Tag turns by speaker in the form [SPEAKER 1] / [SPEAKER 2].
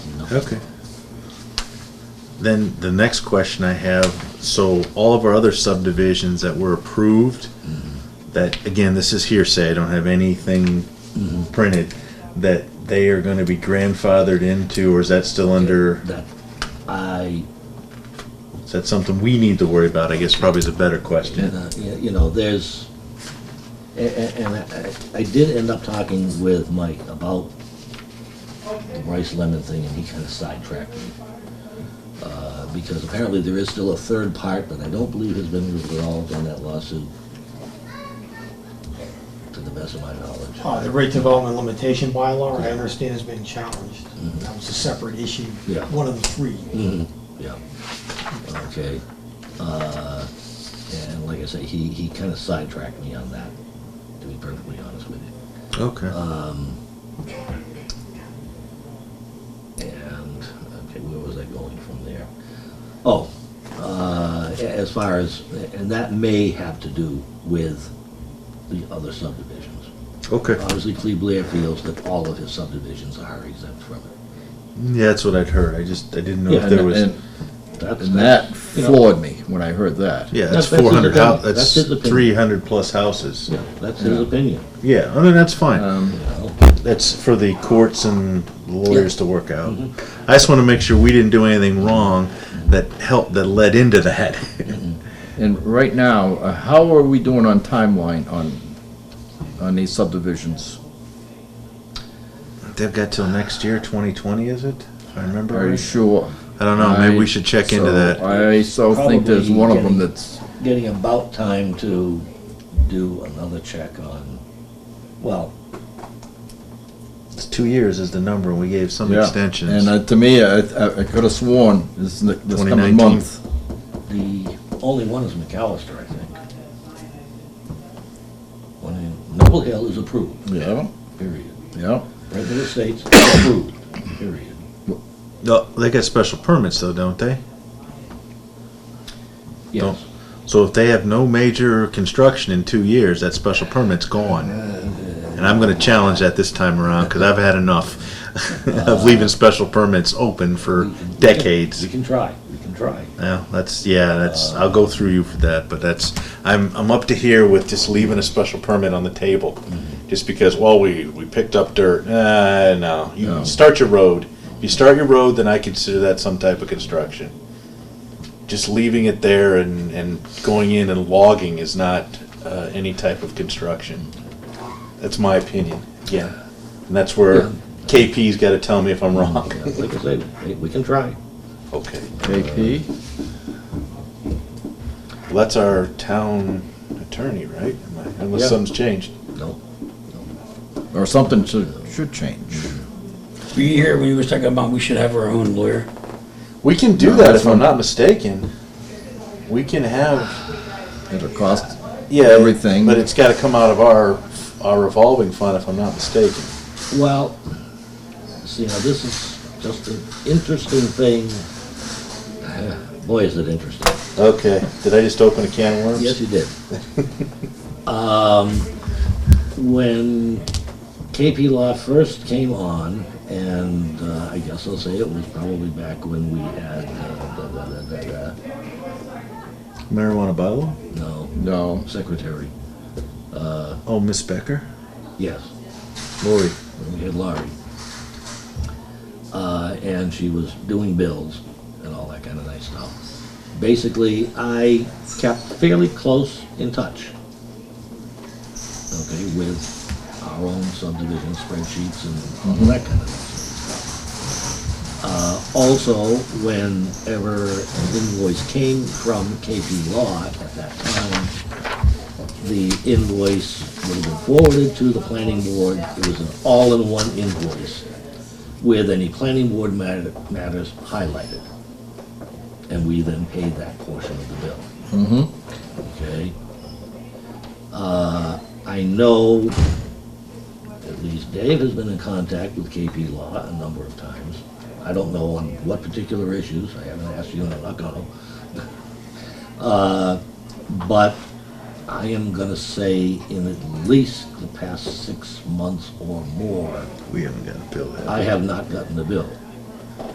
[SPEAKER 1] Okay.
[SPEAKER 2] Then the next question I have, so all of our other subdivisions that were approved, that, again, this is hearsay, I don't have anything printed, that they are gonna be grandfathered into, or is that still under,
[SPEAKER 1] That, I,
[SPEAKER 2] is that something we need to worry about, I guess probably is a better question.
[SPEAKER 1] uh, y- you know, there's, a- a- and I- I I did end up talking with Mike about the Bryce Lemon thing, and he kind of sidetracked me. Uh, Because apparently there is still a third part that I don't believe has been resolved on that lawsuit, to the best of my knowledge.
[SPEAKER 3] Uh, The rate development limitation bylaw, I understand, has been challenged. That was a separate issue,
[SPEAKER 1] Yeah.
[SPEAKER 3] one of the three.
[SPEAKER 1] Mhm, Yeah, okay. Uh, And like I say, he, he kind of sidetracked me on that, to be perfectly honest with you.
[SPEAKER 2] Okay.
[SPEAKER 1] Um, And, okay, where was I going from there? Oh, uh, a- as far as, and that may have to do with the other subdivisions.
[SPEAKER 2] Okay,
[SPEAKER 1] Obviously, Cleve Blair feels that all of his subdivisions are exempt from it.
[SPEAKER 2] yeah, that's what I'd heard, I just, I didn't know
[SPEAKER 1] Yeah,
[SPEAKER 2] if there
[SPEAKER 4] And-
[SPEAKER 2] was,
[SPEAKER 4] And
[SPEAKER 1] That's-
[SPEAKER 4] and
[SPEAKER 1] that's-
[SPEAKER 4] that
[SPEAKER 1] you know,
[SPEAKER 4] floored me when I heard that.
[SPEAKER 2] yeah,
[SPEAKER 1] That's- that's
[SPEAKER 2] that's
[SPEAKER 1] his
[SPEAKER 2] four hundred,
[SPEAKER 1] opinion.
[SPEAKER 2] that's
[SPEAKER 1] That's his opinion.
[SPEAKER 2] three hundred plus houses.
[SPEAKER 1] Yeah, that's his opinion,
[SPEAKER 2] Yeah, I mean, that's fine.
[SPEAKER 4] Um,
[SPEAKER 1] you know?
[SPEAKER 2] That's for the courts and lawyers to work out. I just want to make sure we didn't do anything wrong that helped, that led into that.
[SPEAKER 4] And right now, uh, how are we doing on timeline on, on these subdivisions?
[SPEAKER 2] They've got till next year, 2020, is it? If I remember
[SPEAKER 4] Are you
[SPEAKER 2] right.
[SPEAKER 4] sure?
[SPEAKER 2] I don't know, maybe
[SPEAKER 4] I-
[SPEAKER 2] we should check into
[SPEAKER 4] so
[SPEAKER 2] that.
[SPEAKER 4] I so think there's
[SPEAKER 1] Probably
[SPEAKER 4] one of them
[SPEAKER 1] getting-
[SPEAKER 4] that's,
[SPEAKER 1] getting about time to do another check on, well,
[SPEAKER 2] It's two years is the number, and we gave some
[SPEAKER 4] yeah.
[SPEAKER 2] extensions.
[SPEAKER 4] And uh, to me, I, I- I could have sworn this, is the- this coming
[SPEAKER 2] 2019.
[SPEAKER 4] month.
[SPEAKER 1] the only one is McAllister, I think. One in, Noble Hill is approved,
[SPEAKER 4] Yeah,
[SPEAKER 1] period.
[SPEAKER 4] yeah.
[SPEAKER 1] Redwood Estates approved, period.
[SPEAKER 2] No, They got special permits though, don't they?
[SPEAKER 1] Yes.
[SPEAKER 2] So if they have no major construction in two years, that special permit's gone. And I'm going to challenge that this time around, because I've had enough of leaving special permits open for
[SPEAKER 1] We can-
[SPEAKER 2] decades.
[SPEAKER 1] We can try, we can try.
[SPEAKER 2] Yeah, that's yeah, that's I'll go through you for that, but that's I'm I'm up to here with just leaving a special permit on the table. Just because well we we picked up dirt. Uh no. You
[SPEAKER 4] No.
[SPEAKER 2] start your road. If you start your road then I consider that some type of construction. Just leaving it there and and going in and logging is not uh, any type of construction. That's my opinion. Yeah. And that's where
[SPEAKER 1] Yeah.
[SPEAKER 2] KP's got to tell me if I'm wrong.
[SPEAKER 1] Yeah, Like I said, we- we can try.
[SPEAKER 2] okay.
[SPEAKER 4] KP?
[SPEAKER 2] Uh, Well, that's our town attorney, right? Am I- Unless
[SPEAKER 1] Yeah.
[SPEAKER 2] something's changed.
[SPEAKER 1] No,
[SPEAKER 4] Or something should, should change.
[SPEAKER 5] Were you here when you was talking about we should have our own lawyer?
[SPEAKER 2] We can do
[SPEAKER 4] No,
[SPEAKER 2] that
[SPEAKER 4] that's
[SPEAKER 2] if I'm
[SPEAKER 4] not-
[SPEAKER 2] not mistaken. We can have,
[SPEAKER 4] It'll cost,
[SPEAKER 2] yeah.
[SPEAKER 4] Everything.
[SPEAKER 2] But it's gotta come out of our, our revolving fund if I'm not mistaken.
[SPEAKER 1] Well, see, now this is just an interesting thing. Boy, is it interesting.
[SPEAKER 2] Okay, did I just open a can of worms?
[SPEAKER 1] Yes, you did. Um, When KP Law first came on, and uh, I guess I'll say it was probably back when we had, uh, da, da, da, da, da,
[SPEAKER 2] Marijuana bylaw?
[SPEAKER 1] no,
[SPEAKER 4] no,
[SPEAKER 1] secretary,
[SPEAKER 2] Oh, Miss Becker?
[SPEAKER 1] yes,
[SPEAKER 2] Lori.
[SPEAKER 1] when we had Laurie. Uh, And she was doing bills and all that kind of nice stuff. Basically, I kept fairly close in touch. okay, with our own subdivision spreadsheets and all that kind of stuff. Uh, also, whenever an invoice came from KP Law at that time, the invoice would have been forwarded to the planning board. It was an all-in-one invoice with any planning board matter- matters highlighted. And we then paid that portion of the bill. Mm-hmm. Okay? Uh, I know at least Dave has been in contact with KP Law a number of times. I don't know on what particular issues, I haven't asked you, and I'm not gonna. Uh, But I am gonna say in at least the past six months or more,
[SPEAKER 2] We haven't got a bill yet.
[SPEAKER 1] I have not gotten the bill.